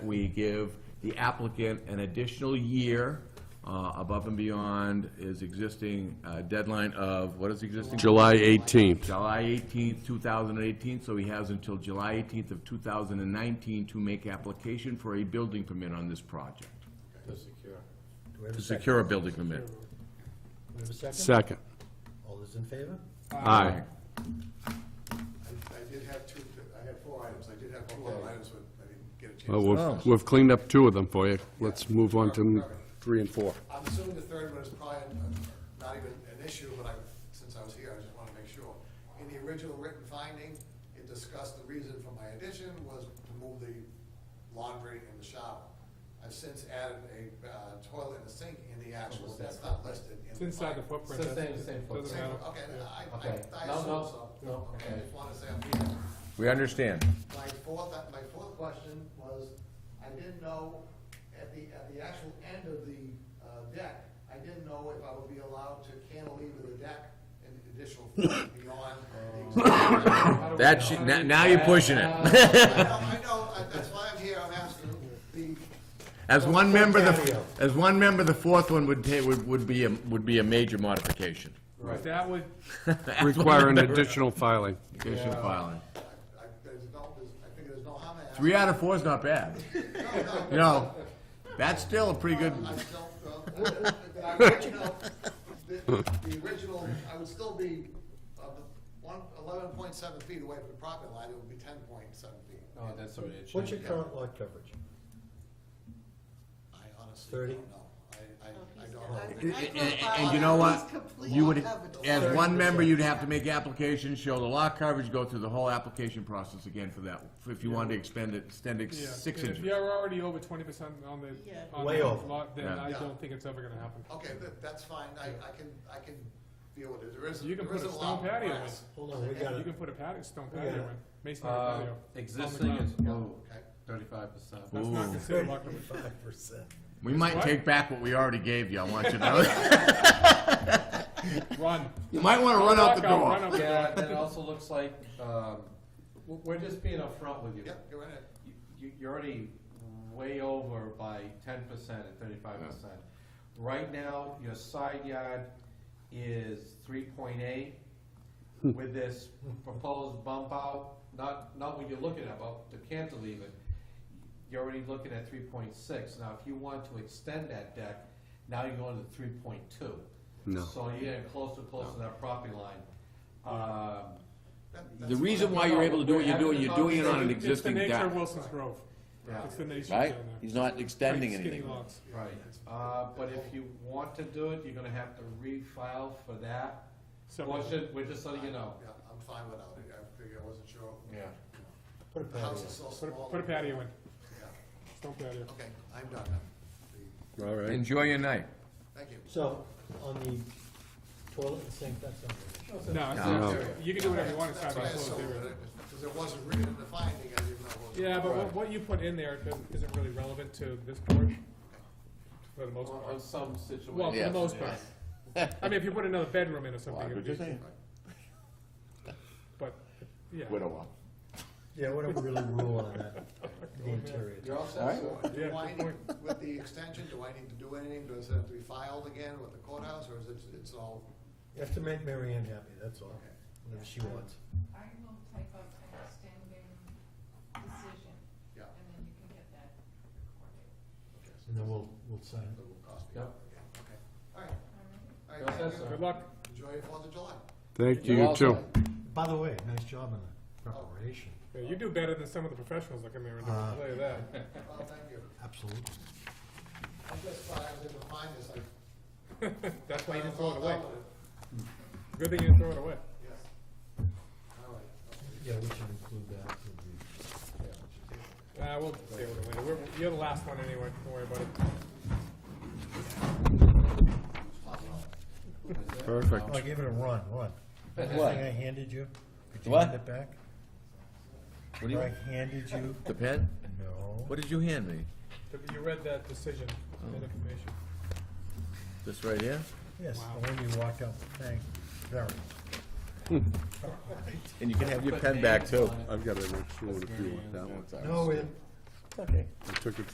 we give the applicant an additional year uh, above and beyond his existing uh, deadline of, what is existing? July 18th. July 18th, 2018, so he has until July 18th of 2019 to make application for a building permit on this project, Do we have to a second? secure a building permit. Do we have a second? Second. All those in favor? Aye. I I did have two, I had four items, I did have two other items, but I didn't get a chance. Oh, Well, we've- we've cleaned up two of them for you. Let's move on to three and four. I'm assuming the third one is probably uh, not even an issue, but I, since I was here, I just want to make sure. In the original written finding, it discussed the reason for my addition was to move the laundry and the shower. I've since added a uh, toilet and a sink in the actual, that's not listed in the. It's inside the finding. footprint. It's the same- that's- same footprint. Doesn't Same, matter. okay, I, I, Okay. I No, assume no, so. no, I okay. just want to say I'm here. We understand. My fourth, my fourth question was, I didn't know, at the, at the actual end of the uh, deck, I didn't know if I would be allowed to cantilever the deck an additional foot beyond the existing. That's, now now you're pushing it. I know, I know, I- that's why I'm here, I'm asking the, As one member, the, as one member, the fourth one would ta, would, would be, a would be a major modification. But that would, Require an additional filing. Petition filing. I, I, there's no, there's, I think there's no harm in asking. Three out of four is not bad. You know, that's still a pretty good, I still, well, the the original, the, the original, I would still be, uh, one, eleven point seven feet away from the property line, it would be ten point seven feet. Oh, that's already a What's change. your current lot coverage? I honestly Thirty? don't know. I, I, I don't know. and, and you know what? You would, as one member, you'd have to make application, show the lot coverage, go through the whole application process again for that, if you wanted to extend it, extend it yeah. six And If inches. you're already over twenty percent on the, Yeah. on Way the over. lot, then Yeah. I Yeah. don't think it's ever gonna happen. Okay, that, that's fine, I, I can, I can deal with it, there is, You can there is put a a stone lot of patio grass. Hold on, we got You it. can put a patio, stone patio Yeah. in, masonry Uh, patio. Existing is below Okay, thirty-five percent. That's not considered lot coverage. Thirty-five percent. We might What? take back what we already gave you, I want you to know. Run. You might wanna run out the Walk door. out, run out the door. Yeah, and it also looks like, um, w- we're just being upfront with you. yep, you're in it. You- you- You're already way over by ten percent and thirty-five percent. Right now, your side yard is three point eight. With this proposed bump out, not, not what you're looking at, but the cantilever, you're already looking at three point six. Now, if you want to extend that deck, now you're going to three point two. No. So you're getting closer, closer to that property line. Um, That- The that's reason why you're able to do what you're doing, you're doing it on an existing It's the nature deck, of Wilson's Grove. Yeah. It's the nature right? down there. He's not extending Right, skinny anything. lots. Right, uh, but if you want to do it, you're gonna have to refile for that. So- Portion, we're just letting you know. Uh, Yeah, I'm fine without it, I figure I wasn't sure. Yeah. Put a The patio. house is so Put a- small. Put a patio in, Yeah. stone patio. Okay, I'm done now. All right. Enjoy your night. Thank you. So, on the toilet and sink, that's not an issue. No, No. it's- you can do whatever you want inside That's what I that closed assumed, area. because it wasn't written in the finding, I didn't know what was. Yeah, but what, what you put in there doesn't- isn't really relevant to this board, for the most On, part. on some situations. Well, for Yeah. the most part. I mean, if you put another bedroom in or something, it'd be, but, yeah. Widow. Yeah, what do we really rule on that, the interior? You're all set, Alright. sir? Yeah, Do I good need, with the extension, do I need to do anything? Does it have to be filed again with the courthouse, or is it, it's all? You have to make Mary Ann happy, that's all, whatever she wants. I will type up an extending decision, Yeah. and then you can get that recorded. okay, so And then we'll, we'll sign It it. will cost me. Yep. Okay. All right. All You're all right, thank set, you. sir? Good luck. Enjoy your Fourth of July. Thank you, you too. By the way, nice job on the preparation. Yeah, you do better than some of the professionals that come here and do, it, I'll tell you that. Well, thank you. Absolutely. I just thought I was able to find this, like. That's why you didn't I throw it thought away. about it. Good thing you didn't throw it away. Yes. All right. Yeah, we should include that in the. Uh, we'll deal with it later. We're, you're the last one anyway, don't worry about it. Perfect. Oh, I gave it a run, run. What? The What? thing I handed you? Could you What? hand it back? What do Or I you, handed you? the pen? No. What did you hand me? But You read that decision, that information. This right here? Yes, the one you walked out, thank, very. And you can have your pen back too. I've got an extra one if you want that one. No, it, Okay. I took it